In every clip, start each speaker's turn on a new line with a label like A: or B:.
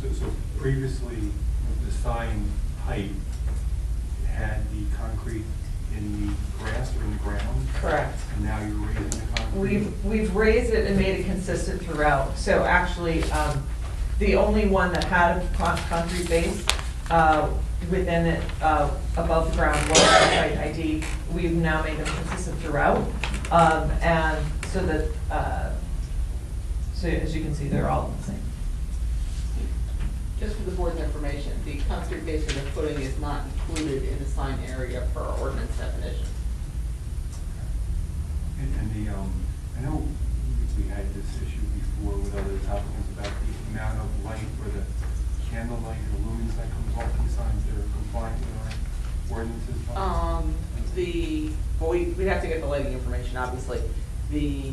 A: So, so previously, the sign height had the concrete in the grass or in the ground,
B: Correct.
A: and now you're raising the concrete?
B: We've, we've raised it and made it consistent throughout. So actually, um, the only one that had a con- concrete base uh, within it, uh, above the ground was the site ID. We've now made them consistent throughout. Um, And so that, uh, so as you can see, they're all the same.
C: Just for the board's information, the concrete base of the footing is not included in the sign area per our ordinance definition.
A: And, and the, um, I know we- we had this issue before with other topics about the amount of light or the candlelight or lumens that comes off these signs that are compliant with our ordinances.
C: Um, the, well, we, we'd have to get the lighting information, obviously. The,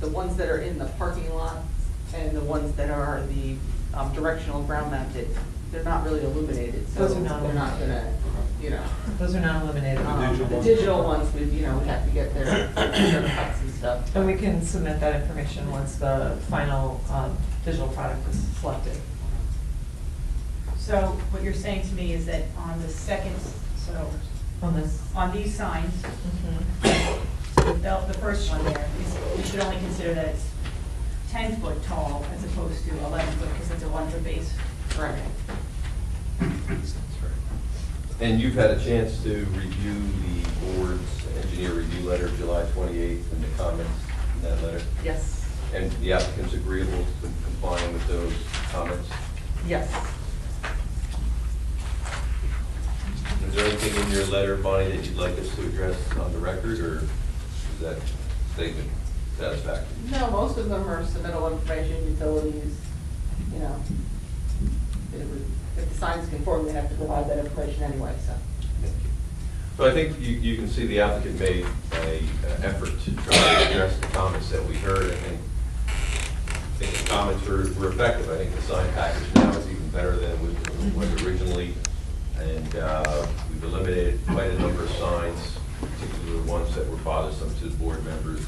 C: the ones that are in the parking lot and the ones that are the um, directional ground mounted, they're not really illuminated, so
B: Those are
C: they're
B: not
C: not gonna, you know.
B: Those are not eliminated.
A: The digital
C: um, The
A: ones.
C: digital ones, we, you know, we have to get their, their cuts and stuff.
B: And we can submit that information once the final um, digital product is selected.
D: So what you're saying to me is that on the second, so
B: On this.
D: on these signs,
B: Mhm.
D: the, the first one there, is- we should only consider that it's ten foot tall as opposed to eleven foot because it's a one foot base.
C: Right.
E: And you've had a chance to review the board's engineer review letter of July 28th and the comments in that letter?
C: Yes,
E: And the applicant's agreeable to complying with those comments?
C: yes.
E: Is there anything in your letter, Bonnie, that you'd like us to address on the record, or is that statement satisfactory?
C: No, most of them are submittal information, utilities, you know. It would- If the signs conform, they have to provide that information anyway, so.
E: Thank you. So I think you, you can see the applicant made a uh, effort to try to address the comments that we heard, I think. I think the comments were were effective, I think the sign package now is even better than it was originally, and, uh, we've eliminated quite a number of signs, particularly the ones that were bothersome to the board members,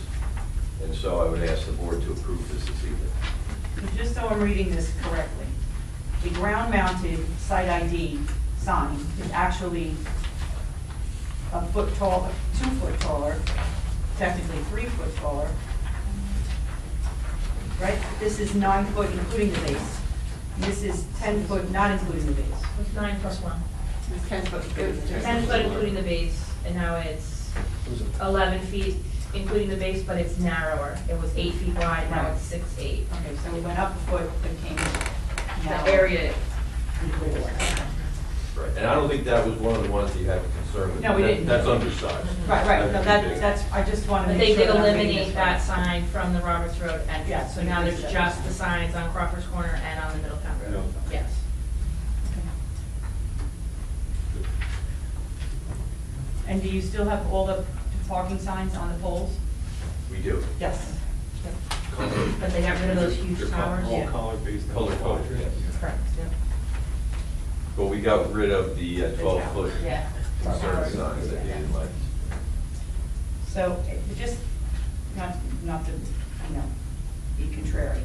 E: and so I would ask the board to approve this this evening.
D: But just so I'm reading this correctly, the ground mounted site ID sign is actually a foot tall, two foot taller, technically three foot taller. Right? This is nine foot including the base. This is ten foot not including the base.
F: It's nine plus one.
C: It's ten foot.
F: Ten foot including the base, and now it's eleven feet, including the base, but it's narrower. It was eight feet wide, now it's six, eight.
D: Okay, so we went up a foot, but came
F: The
D: now.
F: area,
E: Right, and I don't think that was one of the ones that you had a concern with.
D: No, we
E: That-
D: didn't.
E: That's undersized.
D: Right, right, no, that,
E: big.
D: that's, I just wanted to
F: but
D: make
F: they did
D: sure that I'm reading this
F: eliminate that
D: right.
F: sign from the Roberts Road
D: Yeah,
F: entrance. So now there's just the signs on Crawford's Corner and on the Middletown Road.
A: Yeah.
F: Yes.
D: And do you still have all the parking signs on the poles?
E: We do.
D: Yes.
F: But they got rid of those huge
E: They're
F: towers.
A: All
D: Yeah.
A: color based.
E: Color coded, yes.
D: Correct.
E: But we got rid of the uh,
D: The
E: twelve
D: tower,
E: foot
F: Yeah.
E: concern signs that you didn't like.
D: So, it just, not, not to, I know, be contrary.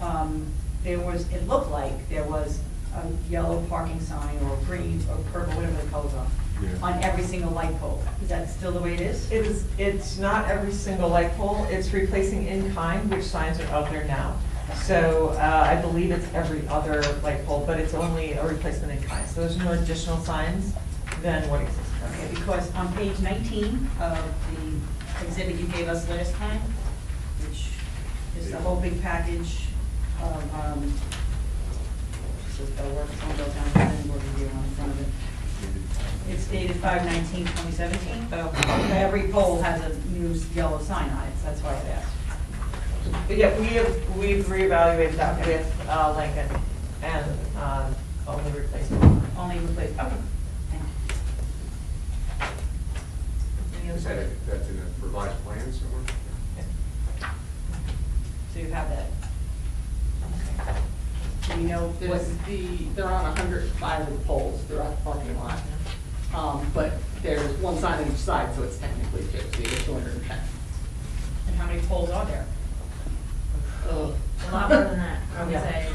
D: Um, There was, it looked like there was a yellow parking sign or green or purple, whatever the colors are,
A: Yeah.
D: on every single light pole. Is that still the way it is?
B: It is, it's not every single light pole, it's replacing in kind, which signs are out there now. So uh, I believe it's every other light pole, but it's only a replacement in kind, so there's no additional signs than what exists
D: Okay,
B: currently.
D: because on page 19 of the exhibit you gave us last time, which is the whole big package of, um, so the work, some bill down, planning board review on the front of it. It's dated 5/19/2017, so every pole has a new yellow sign on it, so that's why I asked.
B: But yeah, we have, we've reevaluated that with uh, Lincoln and um, only replacement.
D: Only replace, okay, thank you.
F: Any other
G: Is that,
F: questions?
G: a- that's in a revised plan somewhere?
D: So you have that. Okay. Do you know what,
C: There's the, they're on hundred and five of the poles throughout the parking lot. Um, but there's one sign on each side, so it's technically fifty, it's two hundred and ten.
D: and how many poles are there?
C: Ugh.
F: A lot more than that, I would
B: Yeah.
F: say.